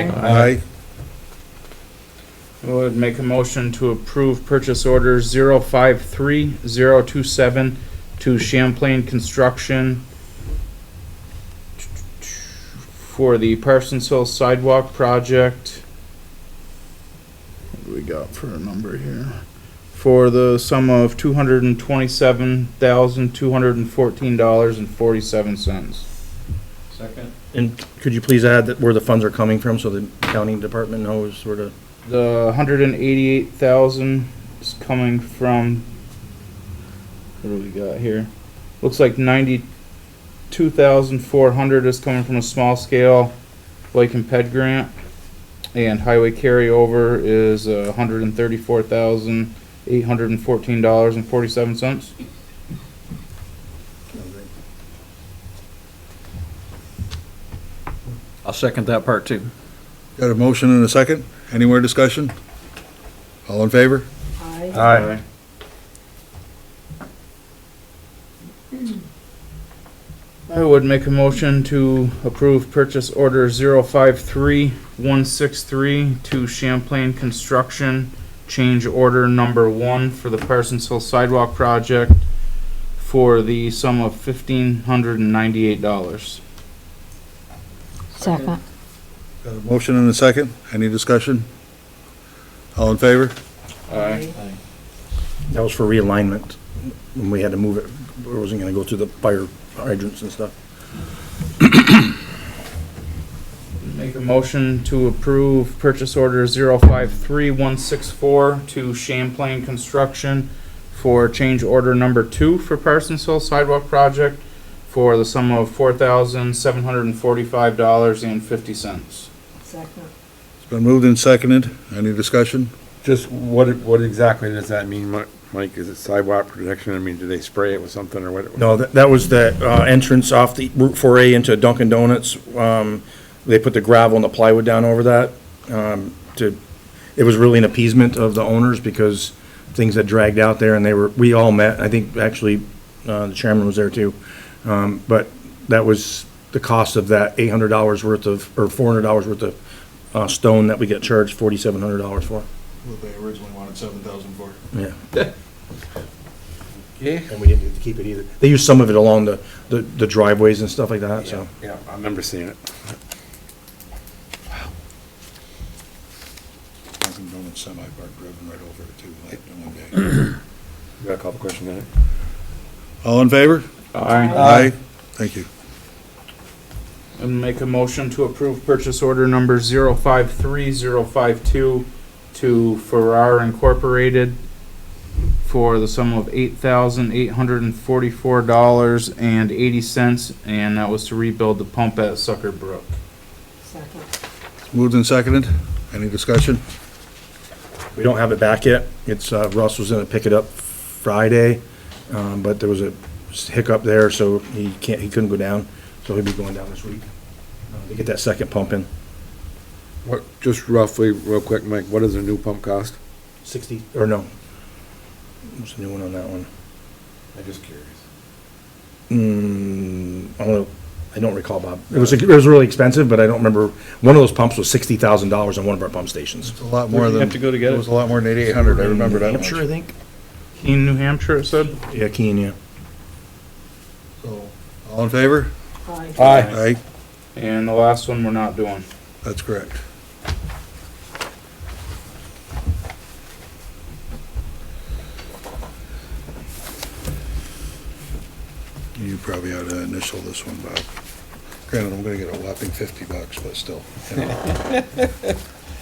Uh, Aye. I would make a motion to approve purchase order zero five three zero two seven to Champlain Construction for the Parsons Hill Sidewalk Project. What do we got for a number here? For the sum of two hundred and twenty-seven thousand, two hundred and fourteen dollars and forty-seven cents. Second? And could you please add that where the funds are coming from, so the accounting department knows where to, The hundred and eighty-eight thousand is coming from, what do we got here? Looks like ninety-two thousand four hundred is coming from a small scale Lake and Ped grant. And highway carryover is a hundred and thirty-four thousand eight hundred and fourteen dollars and forty-seven cents. I'll second that part too. Got a motion and a second? Any more discussion? All in favor? Aye. Aye. I would make a motion to approve purchase order zero five three one six three to Champlain Construction. Change order number one for the Parsons Hill Sidewalk Project for the sum of fifteen hundred and ninety-eight dollars. Second. Got a motion and a second? Any discussion? All in favor? Aye. that was for realignment, when we had to move it, it wasn't gonna go through the fire hydrants and stuff. Make a motion to approve purchase order zero five three one six four to Champlain Construction for change order number two for Parsons Hill Sidewalk Project for the sum of four thousand seven hundred and forty-five dollars and fifty cents. Second. It's been moved and seconded. Any discussion? Just what, what exactly does that mean, Mi- Mike? Is it sidewalk protection? I mean, do they spray it with something or what? No, that, that was the, uh, entrance off the Route four A into Dunkin' Donuts, um, they put the gravel and the plywood down over that, um, to, it was really an appeasement of the owners, because things had dragged out there, and they were, we all met, I think, actually, uh, the chairman was there too, um, but that was the cost of that eight hundred dollars worth of, or four hundred dollars worth of, uh, stone that we get charged forty-seven hundred dollars for, what they originally wanted seven thousand for. yeah. Yeah, And we didn't get to keep it either, they used some of it along the, the the driveways and stuff like that, so. yeah, I remember seeing it. Dunkin' Donuts semi park driven right over it too, like the one day. You Got a couple questions on it? All in favor? Aye. Aye. Thank you. And make a motion to approve purchase order number zero five three zero five two to Farrar Incorporated for the sum of eight thousand eight hundred and forty-four dollars and eighty cents, and that was to rebuild the pump at Sucker Brook. Second. It's Moved and seconded. Any discussion? We don't have it back yet. It's, uh, Russ was gonna pick it up Friday, um, but there was a hiccup there, so he can't, he couldn't go down, so he'll be going down this week. uh, To get that second pump in, What, just roughly, real quick, Mike, what does a new pump cost? sixty, or no. What's the new one on that one? I'm just curious. Mm, I don't know, I don't recall, Bob. It was, it was really expensive, but I don't remember, one of those pumps was sixty thousand dollars on one of our pump stations. It's a lot more than. have to go to get It was a lot more than eighty-eight hundred. I remember that much. Hampshire, I think. Keene, New Hampshire, it said? Yeah, Keene, yeah. So, All in favor? Aye. Aye. And the last one we're not doing. That's correct. You probably ought to initial this one, Bob. Granted, I'm gonna get a whopping fifty bucks, but still. you know.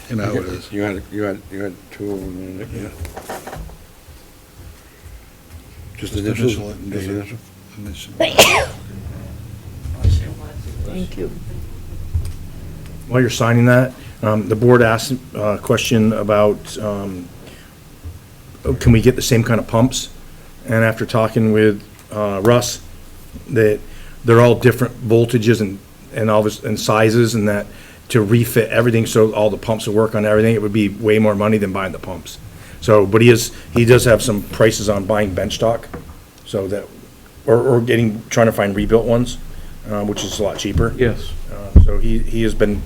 You know how it is. You had, you had, you had two of them, didn't you? Yeah. Just initials? initial it and Just date it. initial? Initial. Thank you. While you're signing that, um, the board asked a question about, um, oh, can we get the same kind of pumps? And after talking with uh, Russ, that they're all different voltages and, and all this, and sizes, and that to refit everything, so all the pumps will work on everything, it would be way more money than buying the pumps. So, but he is, he does have some prices on buying bench stock, so that, or, or getting, trying to find rebuilt ones, uh, which is a lot cheaper. Yes. Uh, So he, he has been